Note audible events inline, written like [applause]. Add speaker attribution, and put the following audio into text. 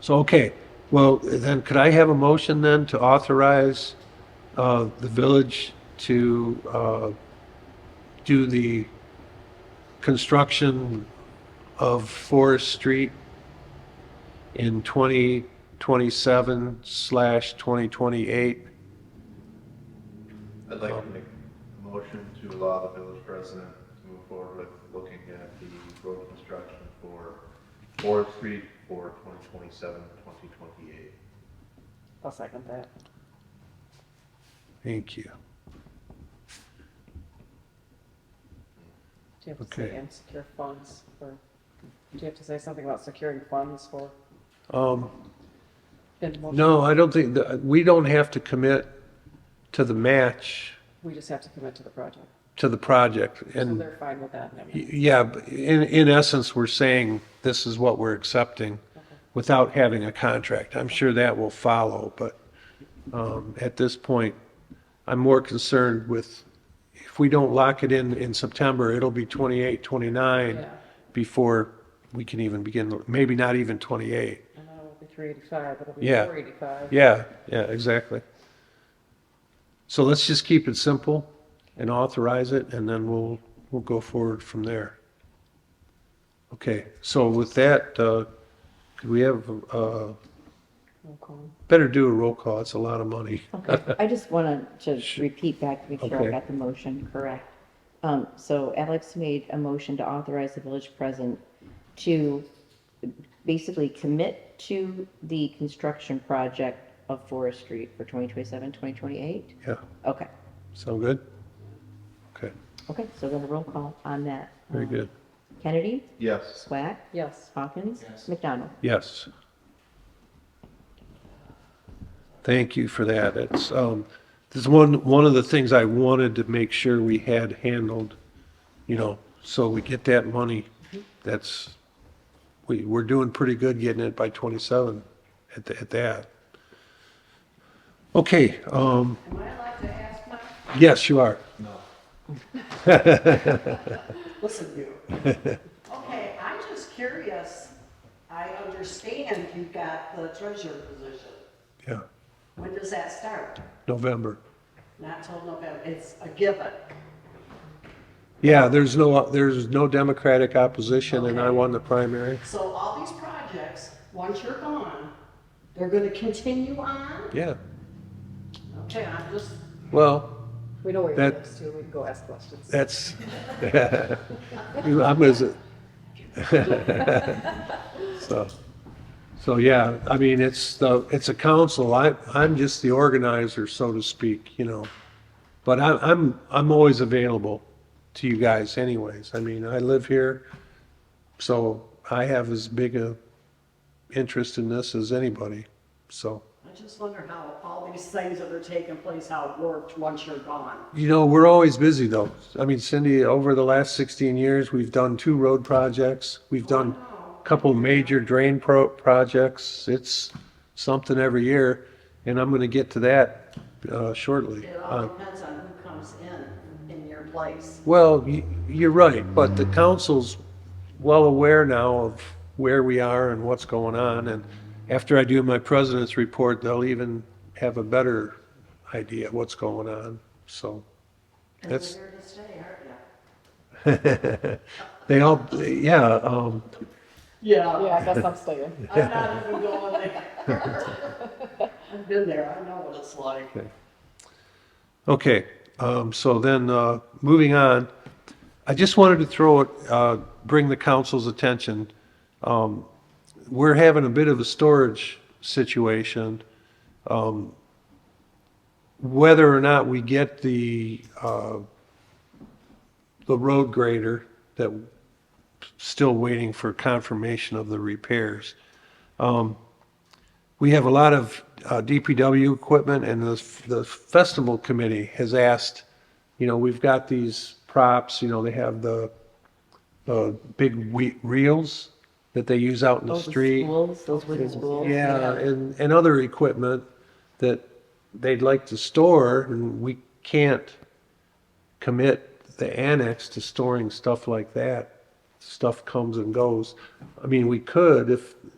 Speaker 1: So, okay, well, then could I have a motion then to authorize uh, the village to uh, do the construction of Forest Street in 2027 slash 2028?
Speaker 2: I'd like to make a motion to allow the village president to move forward with looking at the road construction for Forest Street for 2027, 2028.
Speaker 3: I'll second that.
Speaker 1: Thank you.
Speaker 3: Do you have to say
Speaker 1: Okay.
Speaker 3: and secure funds for, do you have to say something about securing funds for?
Speaker 1: Um,
Speaker 3: in the motion?
Speaker 1: No, I don't think, the- we don't have to commit to the match,
Speaker 3: We just have to commit to the project.
Speaker 1: to the project.
Speaker 3: So
Speaker 1: And
Speaker 3: they're fine with that. and everything.
Speaker 1: Y- Yeah, but in, in essence, we're saying this is what we're accepting without having a contract. I'm sure that will follow, but um, at this point, I'm more concerned with, if we don't lock it in in September, it'll be 28, 29
Speaker 3: Yeah,
Speaker 1: before we can even begin, maybe not even 28.
Speaker 3: and that will be three eighty-five, it'll be
Speaker 1: Yeah.
Speaker 3: four eighty-five.
Speaker 1: Yeah, yeah, exactly. So let's just keep it simple and authorize it, and then we'll, we'll go forward from there. Okay, so with that, uh, could we have, uh, better do a roll call, it's a lot of money.
Speaker 4: Okay, [laughs] I just want to just repeat back to make sure
Speaker 1: Okay.
Speaker 4: I got the motion correct. Um, So Alex made a motion to authorize the village president to basically commit to the construction project of Forest Street for 2027, 2028?
Speaker 1: Yeah,
Speaker 4: Okay,
Speaker 1: sound good? Okay,
Speaker 4: okay, so we'll have a roll call on that.
Speaker 1: very
Speaker 4: Um,
Speaker 1: good,
Speaker 4: Kennedy,
Speaker 2: Yes.
Speaker 4: Swack,
Speaker 3: Yes,
Speaker 4: Hawkins, McDonald.
Speaker 1: yes. Thank you for that, it's, um, there's one, one of the things I wanted to make sure we had handled you know, so we get that money, that's, we, we're doing pretty good getting it by 27 at, the- at that. Okay, um. Am I allowed to ask my? Yes, you are.
Speaker 5: [laughs] Listen, you. [laughs] Okay, I'm just curious. I understand you got the treasurer position.
Speaker 1: Yeah,
Speaker 5: When does that start?
Speaker 1: November.
Speaker 5: Not till November. It's a given.
Speaker 1: Yeah, there's no, there's no Democratic opposition and I
Speaker 5: Okay.
Speaker 1: won the primary.
Speaker 5: So all these projects, once you're gone, they're gonna continue on?
Speaker 1: Yeah,
Speaker 5: Okay, I'm just,
Speaker 1: well,
Speaker 3: we know where your
Speaker 1: That-
Speaker 3: lives too, we can go ask questions.
Speaker 1: that's, [laughs] I'm as. [laughs] So, so yeah, I mean, it's the, it's a council. I, I'm just the organizer, so to speak, you know. But I, I'm, I'm always available to you guys anyways. I mean, I live here, so I have as big a interest in this as anybody, so.
Speaker 5: I just wonder how all these things that are taking place, how it worked once you're gone.
Speaker 1: You know, we're always busy though. I mean, Cindy, over the last 16 years, we've done two road projects. We've done a couple major drain pro- projects. It's something every year. And I'm going to get to that uh, shortly.
Speaker 5: It all
Speaker 1: Uh,
Speaker 5: depends on who comes in, in your place.
Speaker 1: Well, y- you're right, but the council's well aware now of where we are and what's going on. And after I do my president's report, they'll even have a better idea of what's going on. So. That's-
Speaker 5: Because you're here to stay, aren't you?
Speaker 1: [laughs] They all, yeah, um,
Speaker 5: Yeah.
Speaker 3: Yeah, I guess I'm staying.
Speaker 5: I'm not even going there. I've been there, I know what it's like.
Speaker 1: okay, um, so then, uh, moving on, I just wanted to throw it, uh, bring the council's attention. Um, we're having a bit of a storage situation. Um, Whether or not we get the, uh, the road grader that, still waiting for confirmation of the repairs. we have a lot of uh, DPW equipment, and the, the festival committee has asked, you know, we've got these props, you know, they have the, the big we- reels that they use out in the
Speaker 4: Those
Speaker 1: street.
Speaker 4: Spools, those wooden spools.
Speaker 1: Yeah, and, and other equipment that they'd like to store, and we can't commit the annex to storing stuff like that. Stuff comes and goes. I mean, we could if, uh,